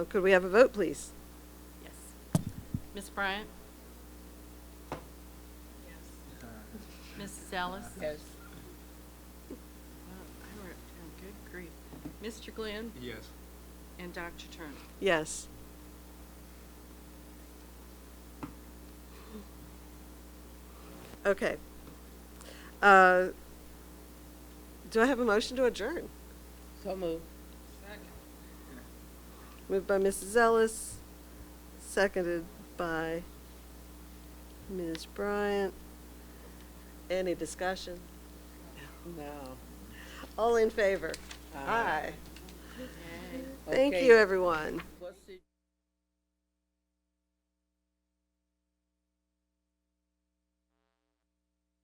Could we have a vote, please? Yes. Ms. Bryant? Yes. Mrs. Ellis? Yes. Wow, I wrote down, good grief. Mr. Glenn Yes. and Dr. Turner. Yes. Okay. Uh, Do I have a motion to adjourn? So moved. Moved by Mrs. Ellis, seconded by Ms. Bryant. Any discussion? No. All in favor? Aye. Thank Okay. you, everyone.